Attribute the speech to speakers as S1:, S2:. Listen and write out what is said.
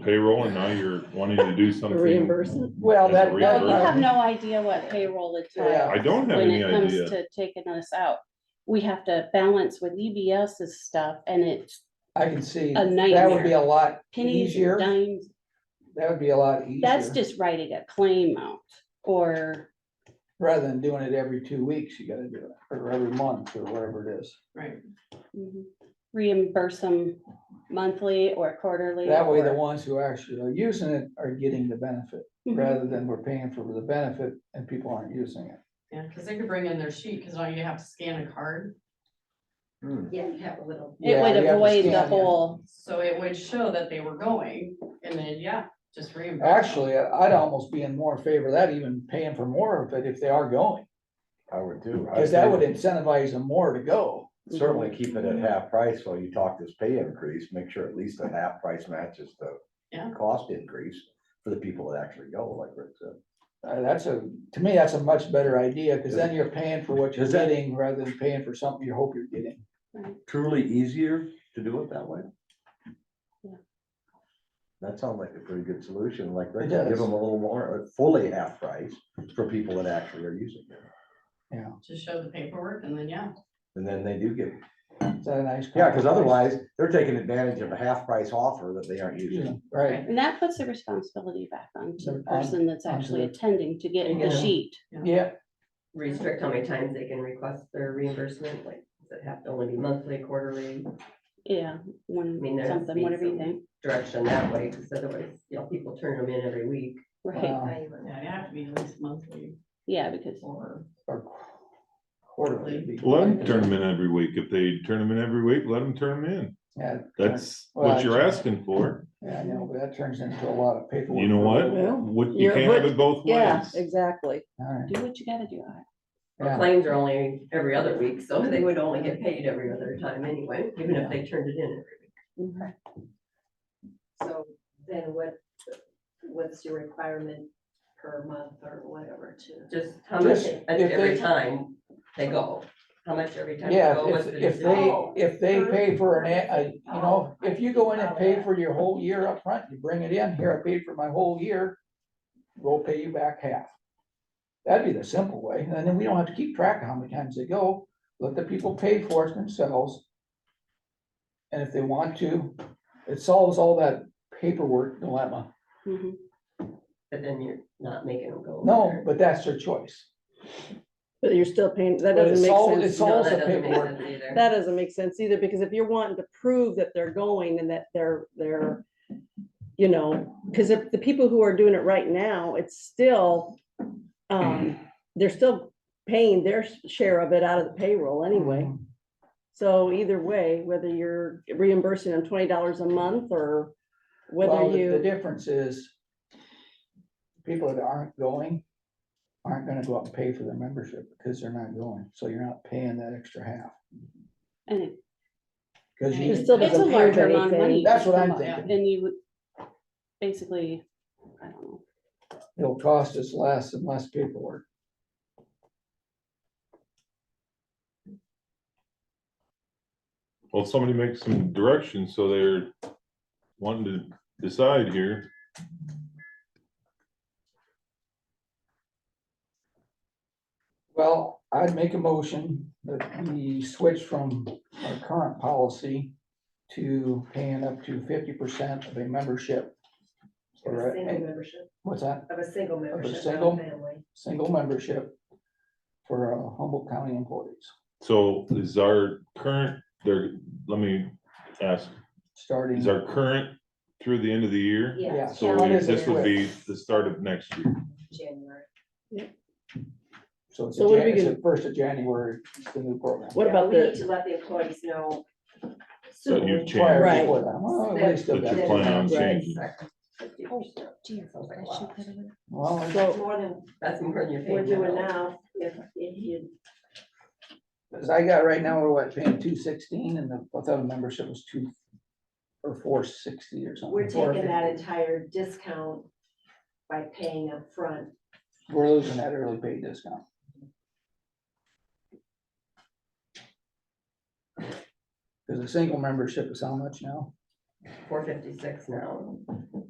S1: payroll and now you're wanting to do something.
S2: Reimbursement?
S3: Well,
S1: as a
S3: that- that-
S1: reimbursement.
S3: Well,
S4: Well, you have no idea what payroll is
S3: Yeah.
S1: I don't have
S4: when
S1: any
S4: it comes
S1: idea.
S4: to taking us out. We have to balance with EBS's stuff and it's
S3: I can see,
S4: A
S3: that would be a lot
S4: pennies
S3: easier,
S4: and dimes.
S3: that would be a lot
S4: That's
S3: easier,
S4: just writing a claim out or,
S3: rather than doing it every two weeks, you gotta do it, or every month, or whatever it is.
S5: Right.
S3: Mm-hmm.
S4: mhm, reimburse them monthly or quarterly.
S3: That way, the
S4: or-
S3: ones who actually are using it are getting the benefit,
S4: Mhm.
S3: rather than we're paying for the benefit and people aren't using it.
S5: Yeah, because they could bring in their sheet, because all you have to scan a card,
S6: Hmm,
S7: Yeah, you have a little.
S4: Mm-hmm. It would
S3: Yeah, you have to
S4: avoid the
S3: scan it.
S4: whole,
S5: so it would show that they were going, and then, yeah, just reimburse. them.
S3: Actually, I'd almost be in more favor of that, even paying for more of it if they are going,
S6: I would too.
S3: because that would incentivize them more to go.
S6: Certainly keep it at half price while you talk this pay increase, make sure at least the half price matches
S5: Yeah.
S6: the cost increase for the people that actually go, like Rick said.
S3: Uh, that's a, to me, that's a much better idea, because then you're paying for what you're
S6: Is that-
S3: getting rather than paying for something you hope you're getting.
S6: Truly easier to do it that way?
S4: Yeah.
S6: That sounds like a pretty good solution, like Rick,
S3: It
S6: said, give
S3: does.
S6: them a little more, uh, fully half price for people that actually are using it.
S5: Just show the paperwork, and then, yeah,
S6: And then they do get,
S3: Is that a nice?
S6: yeah,
S3: compromise?
S6: because otherwise they're taking advantage of a half price offer that they aren't using.
S3: Yeah, Right,
S4: and that puts the responsibility back on to the
S3: On-
S4: person that's actually
S3: onto
S4: attending to get
S7: Yeah.
S4: the sheet.
S3: Mm-hmm. yeah,
S7: Restrict how many times they can request their reimbursement, like, does it have to only be monthly, quarterly,
S4: Yeah,
S7: I mean,
S4: one,
S7: there's
S4: something,
S7: been
S4: whatever you
S7: some-
S4: think,
S7: direction that way, because otherwise, you know, people turn them in every week.
S4: right,
S3: Wow.
S5: yeah, you have to be at least monthly
S4: yeah, because,
S5: or.
S3: or quarterly. would be-
S1: Let them turn them in every week. If they turn them in every week, let them turn them in.
S3: Yeah,
S1: That's
S3: Well,
S1: what you're asking for.
S3: yeah, I know, but that turns into a lot of paperwork.
S1: You know what?
S2: Well,
S1: What, you
S2: you're-
S1: can't have it both
S2: Yeah,
S1: ways.
S2: exactly.
S3: All right,
S4: do what you gotta do.
S7: Well,
S3: yeah.
S7: Claims are only every other week, so they would only get paid every other time anyway, even if they turned it in every week.
S2: Mhm.
S8: So then what, what's your requirement per month or whatever to?
S7: Just how much,
S3: Just
S7: at
S3: if
S7: every
S3: they-
S7: time they go, how much every time they
S3: Yeah,
S7: go, what's
S3: if,
S7: the
S3: if
S7: decision?
S3: they, if they pay for an, a- a- you know, if you go in and pay for your whole year up front, you bring it in, here, I paid for my whole year, we'll pay you back half. That'd be the simple way, and then we don't have to keep track of how many times they go, let the people pay for it themselves. And if they want to, it solves all that paperwork dilemma.
S4: Mhm.
S7: But then you're not making them go.
S3: No,
S7: there.
S3: but that's their choice.
S2: But you're still paying, that
S3: But it's
S2: doesn't
S3: all-
S2: make
S3: it's
S2: sense.
S3: all-
S7: No,
S3: also
S7: that doesn't make
S3: paperwork.
S7: sense either.
S2: That doesn't make sense either, because if you're wanting to prove that they're going and that they're, they're, you know, because if the people who are doing it right now, it's still, um, they're still paying their share of it out of the payroll anyway.
S3: Mm-hmm.
S2: So either way, whether you're reimbursing them twenty dollars a month or
S3: Well,
S2: whether
S3: the- The
S2: you,
S3: difference is people that aren't going aren't gonna go out and pay for their membership because they're not going. So you're not paying that extra half.
S4: And it-
S3: 'Cause
S2: it
S3: you,
S2: still
S4: it's a
S2: doesn't prove
S4: larger amount of money.
S2: anything.
S3: that's what I'm
S4: Yeah,
S3: thinking.
S4: And you would basically, I don't know,
S3: It'll cost us less and less paperwork.
S1: Well, somebody make some direction so they're wanting to decide here.
S3: Well, I'd make a motion that we switch from our current policy to paying up to fifty percent of a membership.
S8: Of
S3: Or
S8: a single
S3: a-
S8: membership,
S3: What's that?
S8: of a single membership, not
S3: single?
S8: a family.
S3: Single membership for uh, Humboldt County employees,
S1: So is our current, there, let me ask,
S3: starting.
S1: is our current through the end of the year?
S3: Yeah.
S8: Yeah.
S1: So
S8: What
S1: we-
S8: is it
S1: this would
S8: with
S1: be the start of next year.
S8: January.
S3: So it's,
S2: So what
S3: a
S2: are we
S3: Jan- it's the first of January, it's the new program.
S2: what
S8: Yeah,
S2: about
S8: We need
S2: the,
S8: to let the employees know.
S1: So you've
S8: soon.
S1: changed.
S3: Prior
S2: Right.
S3: before that. Well, they still
S1: That
S3: got
S1: you
S3: it.
S1: plan on
S3: Right.
S1: changing.
S7: Sounds like a
S8: I should
S7: lot.
S8: put it in.
S3: Well, I-
S8: It's
S2: so,
S8: More than
S7: That's more than you're paying.
S8: we're doing
S7: now.
S8: now, if, if you,
S3: as I got right now, we're what, paying two sixteen and the, without a membership was two or four sixty or something.
S8: we're taking that
S3: 450.
S8: entire discount by paying up front.
S3: We're losing that early pay discount. Cause a single membership is how much now?
S7: Four fifty-six now.